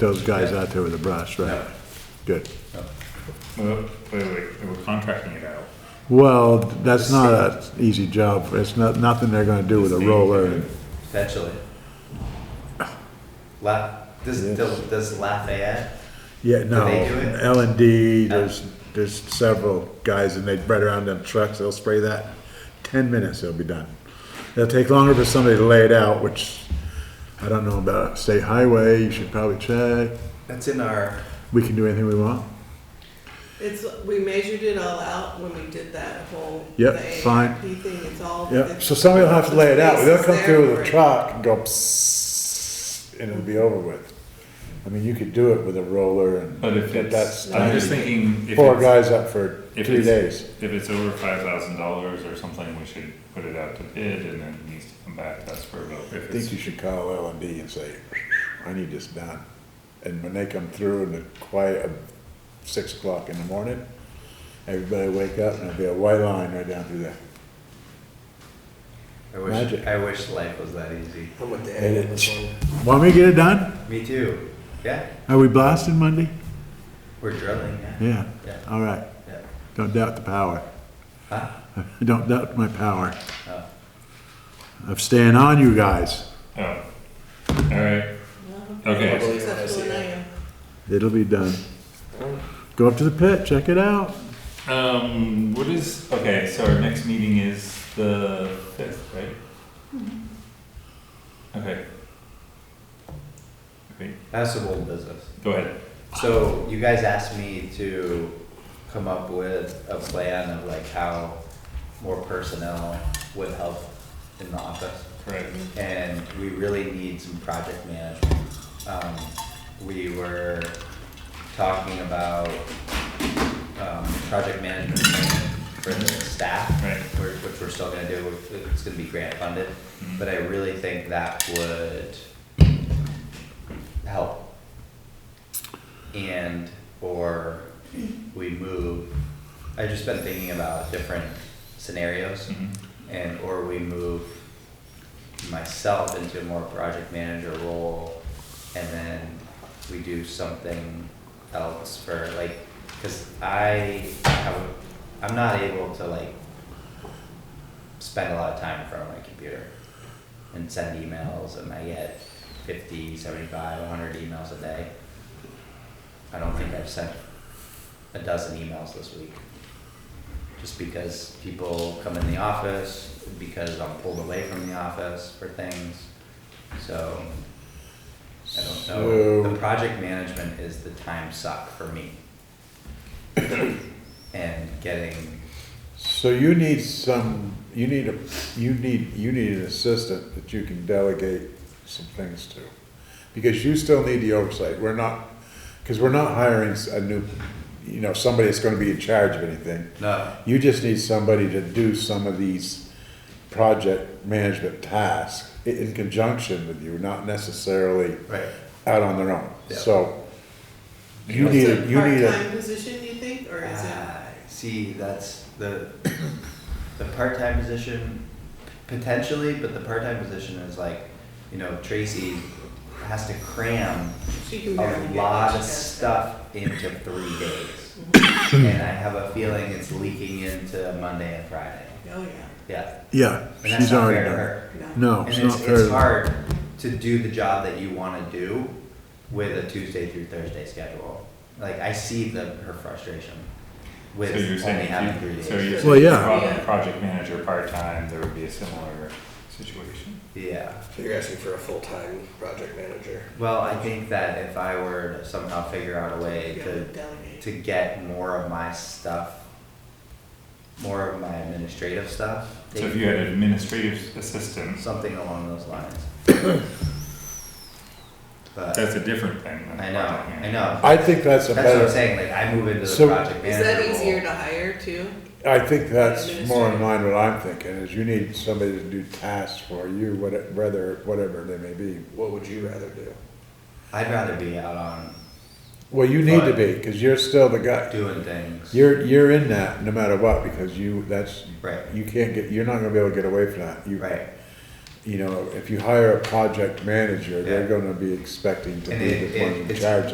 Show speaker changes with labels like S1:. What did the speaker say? S1: those guys out there with the brush, right?
S2: No.
S1: Good.
S3: Well, wait, wait, we're contracting it out.
S1: Well, that's not a easy job. It's not, nothing they're gonna do with a roller and
S2: potentially. La, does, does Lafayette?
S1: Yeah, no,
S2: they do it?
S1: L and D, there's, there's several guys and they spread around them trucks, they'll spray that. Ten minutes, they'll be done. It'll take longer for somebody to lay it out, which I don't know about state highway, you should probably check.
S2: That's in our,
S1: We can do anything we want.
S4: It's, we measured it all out when we did that whole.
S1: Yep,
S4: the
S1: fine.
S4: AAP Thing, it's all.
S1: Yeah,
S4: it's-
S1: so somebody will have to lay it out,
S4: the
S1: they'll
S4: space
S1: come
S4: is
S1: through
S4: there
S1: with a
S4: for it.
S1: truck and go psss, and it'll be over with. I mean, you could do it with a roller and,
S3: But if
S1: but
S3: it's,
S1: that's,
S3: I'm just thinking, if
S1: four
S3: it's,
S1: guys up for
S3: if
S1: three
S3: it's-
S1: days.
S3: if it's over five thousand dollars or something, we should put it out to bid and then it needs to come back, that's for a vote.
S1: I
S3: If
S1: think
S3: it's,
S1: you should call L and D and say, I need this done. And when they come through in the quiet of six o'clock in the morning, everybody wake up and there'll be a white line right down through there.
S2: I wish,
S1: Magic.
S2: I wish life was that easy.
S5: I'm with the
S1: And
S5: animal as
S1: it's-
S5: well.
S1: Want me to get it done?
S2: Me too, yeah,
S1: Are we blasting Monday?
S2: we're drilling, yeah,
S1: Yeah,
S2: yeah,
S1: all right.
S2: yeah.
S1: Don't doubt the power.
S2: Huh?
S1: Don't doubt my power
S2: Oh.
S1: of staying on you guys.
S3: oh, alright,
S4: Well,
S3: okay,
S4: It's up to an AM.
S1: It'll be done. Go up to the pit, check it out.
S3: um, what is, okay, so our next meeting is the fifth, right? Okay. Okay,
S2: I have some old business.
S3: go ahead,
S2: So you guys asked me to come up with a plan of like how more personnel would help in the office.
S3: correct.
S2: Mm-hmm. and we really need some project management. Um, we were talking about, um, project management for the staff.
S3: Right.
S2: Which, which we're still gonna do, it's gonna be grant funded,
S3: Mhm.
S2: but I really think that would help. And, or we move, I've just been thinking about different scenarios
S3: Mhm.
S2: and or we move myself into a more project manager role and then we do something else for like because I, I would, I'm not able to like spend a lot of time in front of my computer and send emails and I get 50, 75, 100 emails a day. I don't think I've sent a dozen emails this week just because people come in the office, because I'm pulled away from the office for things. So I don't know.
S1: So-
S2: The project management is the time suck for me. and getting
S1: So you need some, you need a, you need, you need an assistant that you can delegate some things to. Because you still need the oversight, we're not, because we're not hiring s- a new, you know, somebody that's gonna be in charge of anything.
S2: no
S1: You just need somebody to do some of these project management tasks i- in conjunction with you, not necessarily
S2: right.
S1: out on their own.
S2: Yeah.
S1: So you
S4: Is
S1: need,
S4: it
S1: a you need a.
S4: Part-time position, you think, or is it?
S2: Ah, see, that's the the part-time position potentially, but the part-time position is like, you know, Tracy has to cram
S4: She can barely
S2: a
S4: get
S2: lot
S4: what
S2: of
S4: she does.
S2: stuff into three days.
S4: Mm-hmm.
S1: Hmm.
S2: And I have a feeling it's leaking into Monday and Friday.
S4: Oh, yeah,
S2: Yeah.
S1: Yeah,
S2: And that's
S1: she's
S2: not fair
S1: already
S2: to
S1: done.
S2: her.
S4: no,
S1: No,
S2: And
S1: it's
S2: it's,
S1: not fair.
S2: it's
S1: to-
S2: hard to do the job that you wanna do with a Tuesday through Thursday schedule. Like, I see the, her frustration with
S3: So you're
S2: only
S3: saying,
S2: having
S3: if
S2: three
S3: you-
S2: days.
S3: so you're
S1: Well,
S3: saying
S1: yeah.
S3: pro- project manager part-time, there would be a similar situation.
S2: Yeah.
S5: So you're asking for a full-time project manager.
S2: Well, I think that if I were to somehow figure out a way
S4: you gotta
S2: to
S4: delegate.
S2: to get more of my stuff, more of my administrative stuff,
S3: So if you had an administrative assistant,
S2: something along those lines. But
S3: that's a different thing than.
S2: I know,
S3: project
S2: I know.
S1: I think that's a
S2: That's what I'm
S1: better,
S2: saying. Like I move into the
S1: So-
S2: project
S4: Is
S2: manager
S4: that
S2: role.
S4: easier to hire too?
S1: I think that's more in line with what I'm thinking, is you need somebody to do tasks for you, whate- whether, whatever they may be.
S5: What would you rather do?
S2: I'd rather be out on
S1: Well, you need to be, because you're still the guy,
S2: doing things.
S1: you're, you're in that no matter what, because you, that's,
S2: right.
S1: you can't get, you're not gonna be able to get away from that. You-
S2: Right.
S1: you know, if you hire a project manager, they're
S2: Yeah.
S1: gonna be expecting to
S2: And
S1: be
S2: it-
S1: the
S2: it-
S1: one in
S2: it's-
S1: charge